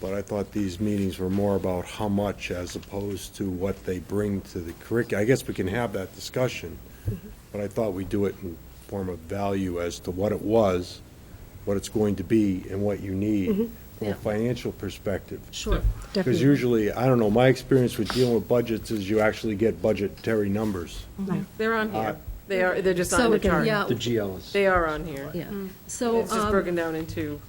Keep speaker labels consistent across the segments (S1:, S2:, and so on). S1: but I thought these meetings were more about how much as opposed to what they bring to the curriculum. I guess we can have that discussion,
S2: Mm-hmm.
S1: but I thought we'd do it in form of value as to what it was, what it's going to be, and what you need from
S2: Mm-hmm. Yeah.
S1: a financial perspective.
S2: Sure,
S1: Because
S2: definitely.
S1: usually, I don't know, my experience with dealing with budgets is you actually get budgetary numbers.
S3: They're on here. They are, they're just
S2: So
S3: on the
S2: we can-
S3: chart.
S2: yeah.
S4: The GLs.
S3: They are on here.
S2: Yeah, so.
S3: It's just
S2: um,
S3: broken Um, down into,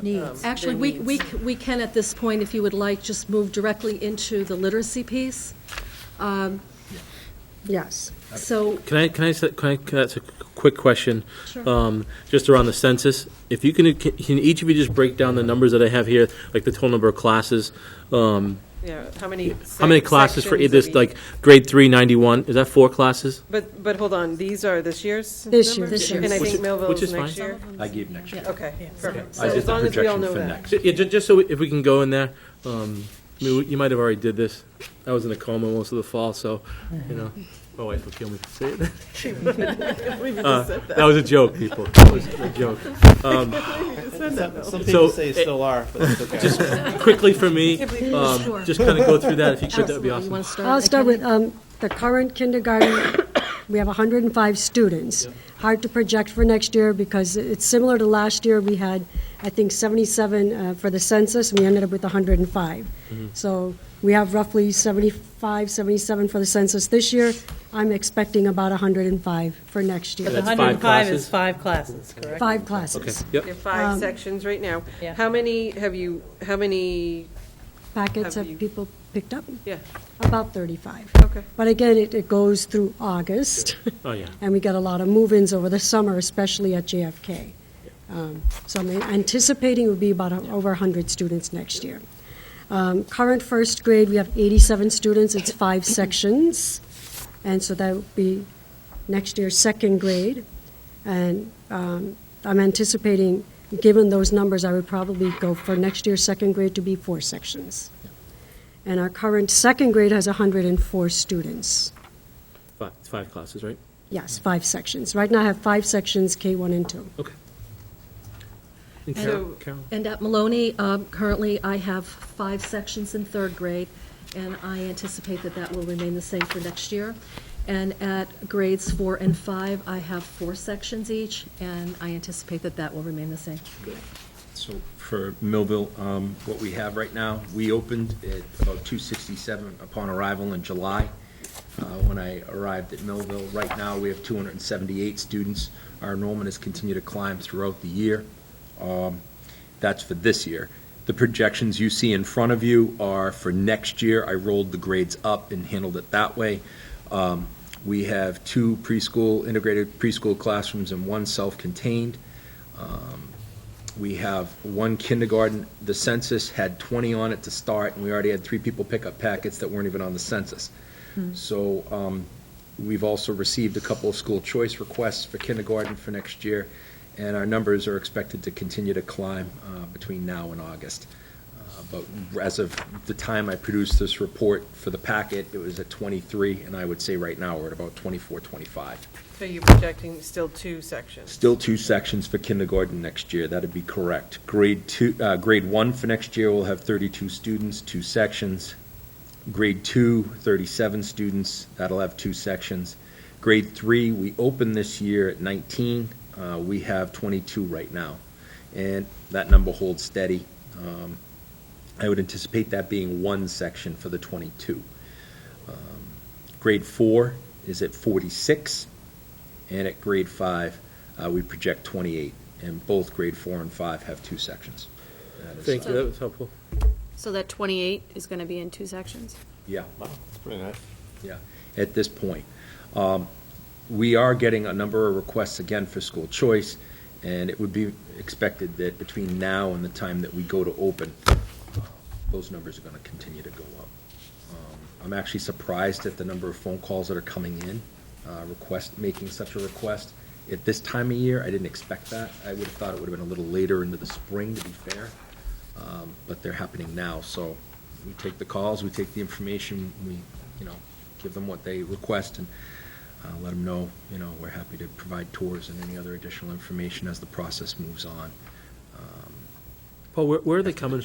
S2: Needs. Actually,
S3: their
S2: we, we,
S3: needs.
S2: c- we can at this point, if you would like, just move directly into the literacy piece. Um,
S5: Yes.
S2: So,
S6: Can I, can I, s- can I, can I- that's a quick question.
S2: Sure.
S6: Um, just around the census, if you can, can each of you just break down the numbers that I have here, like the total number of classes? Um,
S3: yeah, how many?
S6: how many
S3: sec-
S6: classes for
S3: sections
S6: this,
S3: of each-
S6: like, grade three ninety-one, is that four classes?
S3: But, but hold on, these are this year's numbers?
S5: This year's. This year's.
S3: And I
S6: Which
S3: think
S6: is-
S3: Millville's
S6: which is
S3: next
S6: fine.
S3: year?
S4: I gave next year.
S3: Okay, perfect. So
S4: I did
S3: as
S4: the
S3: long as we all
S4: projection
S3: know
S4: for
S3: that.
S4: next.
S6: Ju- Yeah, ju- just so, we- if we can go in there, um, I mean, we- you might have already did this. I was in a coma most of the fall, so, you know, my wife will kill me for saying that. Uh, That was a joke, people, that was a joke.
S7: Some
S6: So,
S7: people say
S6: eh,
S7: still are, but it's okay.
S6: Just quickly for me,
S3: Simply-
S6: um,
S2: Sure.
S6: just kind of go through that, if you could, that would
S2: Absolutely.
S6: be
S2: You
S6: awesome.
S2: wanna
S3: Uh,
S2: start?
S5: I'll
S2: I
S5: start
S2: can-
S5: with um, the current kindergarten, we have 105 students. Hard to project for next year because it's similar to last year. We had, I think, 77 uh, for the census, and we ended up with 105.
S6: Mm-hmm.
S5: So we have roughly 75, 77 for the census this year. I'm expecting about 105 for next year.
S6: That's five
S8: 105
S6: classes?
S8: is five classes, correct?
S5: Five
S6: Okay,
S5: classes.
S6: yep.
S3: There
S2: Um,
S3: are five sections right now.
S8: Yeah.
S3: How many have you, how many,
S5: Packets
S3: Have
S5: have
S3: you-
S5: people picked up?
S3: yeah,
S5: About 35.
S3: okay.
S5: But again, it it goes through August.
S6: Oh, yeah.
S5: and we get a lot of move-ins over the summer, especially at JFK. Um, So I'm anticipating it will be about a- over 100 students next year. Um, Current first grade, we have 87 students, it's five sections, and so that would be next year's second grade. And um, I'm anticipating, given those numbers, I would probably go for next year's second grade to be four sections. And our current second grade has 104 students.
S6: Five, it's five classes, right?
S5: Yes, five sections. Right now, I have five sections, K1 and 2.
S6: Okay. And
S3: And-
S6: Carol, Carol?
S2: And at Maloney, um, currently, I have five sections in third grade, and I anticipate that that will remain the same for next year. And at grades four and five, I have four sections each, and I anticipate that that will remain the same.
S4: So for Millville, um, what we have right now, we opened at about two sixty-seven upon arrival in July. Uh, when I arrived at Millville, right now, we have two hundred and seventy-eight students. Our enrollment has continued to climb throughout the year. Um, that's for this year. The projections you see in front of you are for next year. I rolled the grades up and handled it that way. Um, we have two preschool, integrated preschool classrooms and one self-contained. Um, we have one kindergarten, the census had 20 on it to start, and we already had three people pick up packets that weren't even on the census. So um, we've also received a couple of school choice requests for kindergarten for next year, and our numbers are expected to continue to climb uh, between now and August. Uh, But as of the time I produced this report for the packet, it was at 23, and I would say right now we're at about 24, 25.
S3: So you're projecting still two sections?
S4: Still two sections for kindergarten next year, that'd be correct. Grade two, uh, grade one for next year will have thirty-two students, two sections. Grade two, thirty-seven students, that'll have two sections. Grade three, we opened this year at nineteen, uh, we have twenty-two right now. And that number holds steady. Um, I would anticipate that being one section for the twenty-two. Um, Grade four is at forty-six, and at grade five, uh, we project 28, and both grade four and five have two sections. That is,
S6: Thank you,
S4: uh,
S6: that was helpful.
S9: So that 28 is going to be in two sections?
S4: Yeah,
S7: It's pretty nice.
S4: yeah, at this point. Um, We are getting a number of requests again for school choice, and it would be expected that between now and the time that we go to open, uh, those numbers are going to continue to go up. Um, I'm actually surprised at the number of phone calls that are coming in, uh, request, making such a request. At this time of year, I didn't expect that. I would have thought it would have been a little later into the spring, to be fair. Um, But they're happening now, so we take the calls, we take the information, we, you know, give them what they request and uh, let them know, you know, we're happy to provide tours and any other additional information as the process moves on. Um,
S6: Paul, where, where are they coming from?